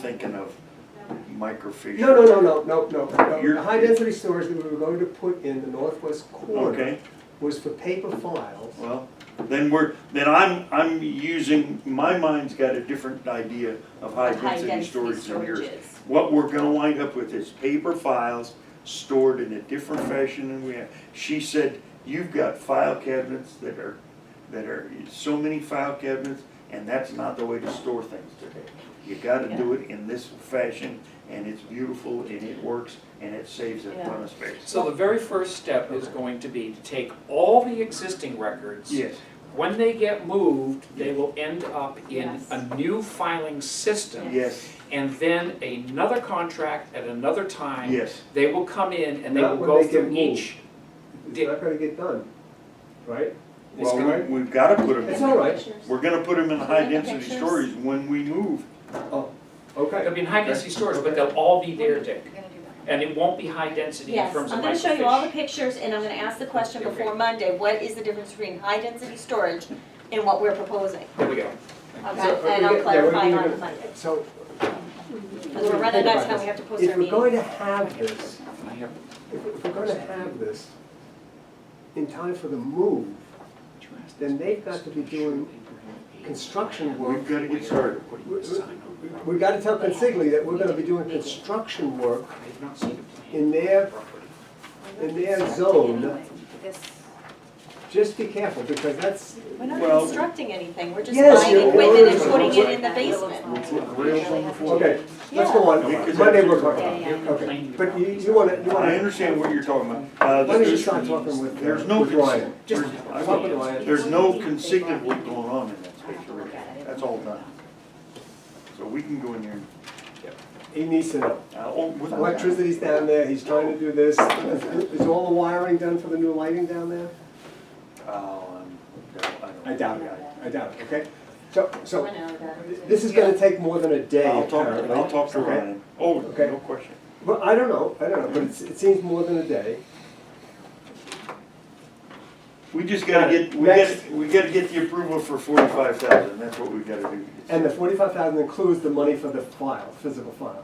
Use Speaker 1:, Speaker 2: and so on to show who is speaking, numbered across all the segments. Speaker 1: thinking of microfiche.
Speaker 2: No, no, no, no, no, no, no.
Speaker 1: You're-
Speaker 2: The high-density storage that we were going to put in the northwest corner
Speaker 1: Okay.
Speaker 2: was for paper files.
Speaker 1: Well, then we're, then I'm, I'm using, my mind's got a different idea of high
Speaker 3: Of high
Speaker 1: density
Speaker 3: density
Speaker 1: storage than yours.
Speaker 3: storages.
Speaker 1: What we're gonna wind up with is paper files stored in a different fashion than we have. She said, you've got file cabinets that are, that are, so many file cabinets, and that's not the way to store things today. You gotta do it in this fashion, and it's beautiful, and it works, and it saves a ton of space.
Speaker 4: So the very first step is going to be to take all the existing records.
Speaker 1: Yes,
Speaker 4: When they get moved, they will end up in
Speaker 3: Yes.
Speaker 4: a new filing system.
Speaker 1: yes,
Speaker 4: And then another contract at another time.
Speaker 1: yes.
Speaker 4: They will come in and they
Speaker 2: Not
Speaker 4: will
Speaker 2: when
Speaker 4: go
Speaker 2: they get
Speaker 4: through each.
Speaker 2: It's
Speaker 4: Did-
Speaker 2: not gonna get done, right?
Speaker 4: It's
Speaker 1: Well,
Speaker 4: gonna-
Speaker 1: we- we've gotta put them in.
Speaker 2: It's all right.
Speaker 1: We're gonna put them in
Speaker 3: Can we
Speaker 1: high
Speaker 3: get the
Speaker 1: density
Speaker 3: pictures?
Speaker 1: stories when we move.
Speaker 4: They'll
Speaker 2: Okay.
Speaker 4: be in high density storage, but they'll all be there, Dick.
Speaker 5: We're gonna do that.
Speaker 4: And it won't be high density in
Speaker 3: Yes, I'm
Speaker 4: terms of microfiche.
Speaker 3: gonna show you all the pictures and I'm gonna ask the question
Speaker 4: Okay.
Speaker 3: before Monday, what is the difference between high density storage and what we're proposing?
Speaker 4: There we go.
Speaker 2: So,
Speaker 3: Okay,
Speaker 2: are
Speaker 3: and
Speaker 2: we get-
Speaker 3: I'll
Speaker 2: yeah, we're
Speaker 3: clarify
Speaker 2: gonna-
Speaker 3: on Monday.
Speaker 2: So,
Speaker 3: Because we're running out of time, we have to post
Speaker 2: if
Speaker 3: our
Speaker 2: we're
Speaker 3: meeting.
Speaker 2: going to have this,
Speaker 4: I have
Speaker 2: if if we're gonna have this in time for the move, then they've got to be doing construction work.
Speaker 1: We've gotta get started.
Speaker 2: We- we- We gotta tell Consigli that we're gonna be doing construction work
Speaker 4: I've not seen a plan.
Speaker 2: in their,
Speaker 5: We're
Speaker 2: in
Speaker 5: gonna
Speaker 2: their
Speaker 5: construct it
Speaker 2: zone.
Speaker 5: anyway. This,
Speaker 2: Just be careful, because that's,
Speaker 5: we're not
Speaker 1: Well-
Speaker 3: Constructing anything, we're just
Speaker 2: Yes,
Speaker 3: buying
Speaker 2: you're-
Speaker 3: equipment and
Speaker 2: you're-
Speaker 3: putting it in the
Speaker 5: that little
Speaker 3: basement.
Speaker 5: file.
Speaker 1: We'll put rails on the floor.
Speaker 2: okay, let's go on,
Speaker 1: Yeah.
Speaker 2: Monday we're talking
Speaker 5: Yeah, yeah,
Speaker 2: about,
Speaker 5: yeah.
Speaker 2: okay, but you, you wanna, you
Speaker 1: I
Speaker 2: wanna,
Speaker 1: understand what you're talking about. Uh,
Speaker 2: why don't you
Speaker 1: there's-
Speaker 2: start talking with, uh,
Speaker 1: There's no,
Speaker 2: with Ryan?
Speaker 1: cons- there's, I
Speaker 2: Talk with
Speaker 1: will-
Speaker 2: Ryan.
Speaker 1: there's no consignment work going on in that space already. That's all done. So we can go in there, and-
Speaker 2: He needs to know.
Speaker 1: uh, oh, with.
Speaker 2: Electricity's down there, he's trying to do this, is is all the wiring done for the new lighting down there?
Speaker 1: Oh, I'm- don't-
Speaker 2: I doubt it, I doubt it, okay? So, so,
Speaker 3: I know that.
Speaker 2: this is gonna take more than a day
Speaker 1: I'll talk,
Speaker 2: apparently.
Speaker 1: I'll talk to
Speaker 2: Okay.
Speaker 1: Ryan. Oh,
Speaker 2: Okay.
Speaker 1: no question.
Speaker 2: Well, I don't know, I don't know, but it's, it seems more than a day.
Speaker 1: We just gotta get, we
Speaker 2: Next.
Speaker 1: gotta, we gotta get the approval for forty-five thousand. That's what we gotta do.
Speaker 2: And the forty-five thousand includes the money for the file, physical files,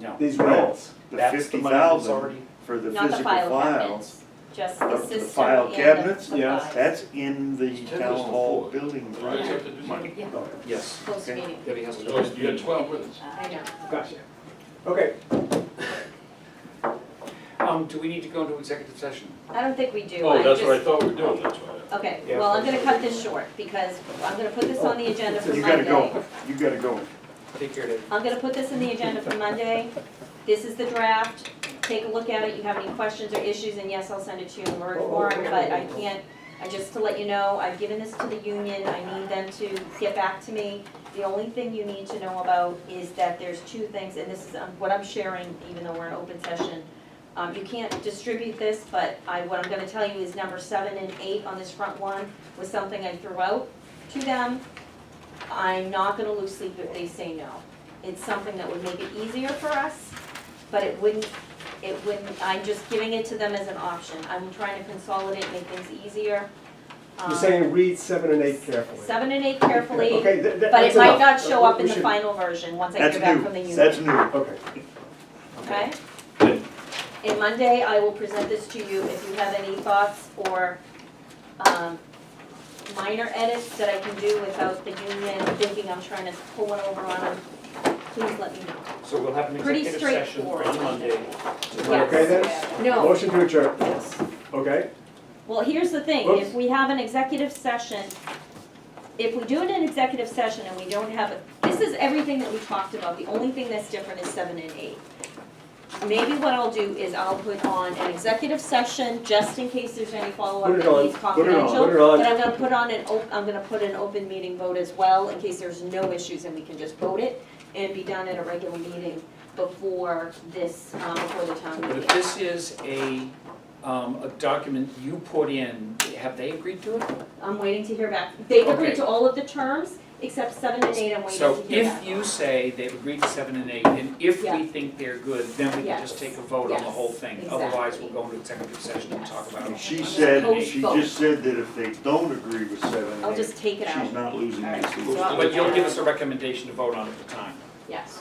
Speaker 4: No.
Speaker 2: these
Speaker 1: No.
Speaker 2: rolls.
Speaker 1: The
Speaker 4: That's the
Speaker 1: fifty
Speaker 4: money that's
Speaker 1: thousand
Speaker 4: already,
Speaker 1: for the
Speaker 3: Not the
Speaker 1: physical
Speaker 3: file
Speaker 1: files.
Speaker 3: cabinets, just
Speaker 1: The-
Speaker 3: the
Speaker 1: the
Speaker 3: system
Speaker 1: file
Speaker 3: and the
Speaker 1: cabinets?
Speaker 3: supplies.
Speaker 2: Yes.
Speaker 1: That's in the town hall building project money.
Speaker 5: yeah,
Speaker 4: yes.
Speaker 3: Post
Speaker 1: Okay.
Speaker 3: meeting,
Speaker 4: Debbie has to.
Speaker 6: Joyce, you had twelve with us.
Speaker 3: I know.
Speaker 2: Gotcha. Okay,
Speaker 4: Um, do we need to go into executive session?
Speaker 3: I don't think we do.
Speaker 6: Oh, that's
Speaker 3: just-
Speaker 6: what I thought we were doing, that's why.
Speaker 3: Okay,
Speaker 2: Yeah.
Speaker 3: well, I'm gonna cut this short because I'm gonna put this on the agenda for
Speaker 2: You
Speaker 3: Monday.
Speaker 1: You gotta go, you gotta go.
Speaker 4: Take care, Debbie.
Speaker 3: I'm gonna put this in the agenda for Monday. This is the draft. Take a look at it. You have any questions or issues, and yes, I'll send it to you in Word form, but I can't, I, just to let you know, I've given this to the union. I need them to get back to me. The only thing you need to know about is that there's two things, and this is um, what I'm sharing, even though we're in open session. Um, you can't distribute this, but I, what I'm gonna tell you is number seven and eight on this front one was something I threw out to them. I'm not gonna lose sleep if they say no it's something that would make it easier for us, but it wouldn't, it wouldn't, I'm just giving it to them as an option. I'm trying to consolidate, make things easier. Um,
Speaker 2: you're saying read seven and eight carefully.
Speaker 3: Seven and eight carefully,
Speaker 2: Okay, th- th-
Speaker 3: but it
Speaker 2: that's
Speaker 3: might
Speaker 2: enough.
Speaker 3: not show up in
Speaker 2: We
Speaker 3: the
Speaker 2: should-
Speaker 3: final version, once I
Speaker 1: That's
Speaker 3: hear back from the
Speaker 1: new,
Speaker 3: union.
Speaker 1: that's new.
Speaker 2: Okay,
Speaker 3: Okay? And Monday, I will present this to you if you have any thoughts or, um, minor edits that I can do without the union thinking I'm trying to pull one over on them. Please let me know.
Speaker 4: So we'll have an
Speaker 3: Pretty
Speaker 4: executive session
Speaker 3: straightforward.
Speaker 4: on Monday.
Speaker 2: okay
Speaker 3: Yes.
Speaker 2: then?
Speaker 3: No.
Speaker 2: Motion to adjourn, okay?
Speaker 3: Well, here's the thing,
Speaker 2: Oops.
Speaker 3: if we have an executive session, if we do it in executive session and we don't have, it, this is everything that we talked about, the only thing that's different is seven and eight. Maybe what I'll do is I'll put on an executive session, just in case there's any follow-up
Speaker 2: Put it
Speaker 3: that
Speaker 2: on,
Speaker 3: needs
Speaker 2: put it on,
Speaker 3: confidential.
Speaker 2: put it on.
Speaker 3: But I'm gonna put on an, op- I'm gonna put an open meeting vote as well, in case there's no issues and we can just vote it and be done at a regular meeting before this, um, before the town
Speaker 4: But if
Speaker 3: meeting.
Speaker 4: this is a, um, a document you put in, have they agreed to it?
Speaker 3: I'm waiting to hear back. They've agreed
Speaker 4: Okay.
Speaker 3: to all of the terms except seven and eight, I'm waiting to
Speaker 4: So
Speaker 3: hear back.
Speaker 4: if you say they've agreed to seven and eight, and if we
Speaker 3: Yeah.
Speaker 4: think they're good, then we can
Speaker 3: Yes.
Speaker 4: just take a vote on the whole
Speaker 3: Yes,
Speaker 4: thing.
Speaker 3: exactly.
Speaker 4: Otherwise, we'll go into executive session and talk about it.
Speaker 1: She said, she just said that if they don't agree with seven
Speaker 3: I'll
Speaker 1: and eight,
Speaker 3: just take it out.
Speaker 1: she's not losing any sleep.
Speaker 3: So I'll-
Speaker 4: But you'll give us a recommendation to vote on at the time.
Speaker 3: yes.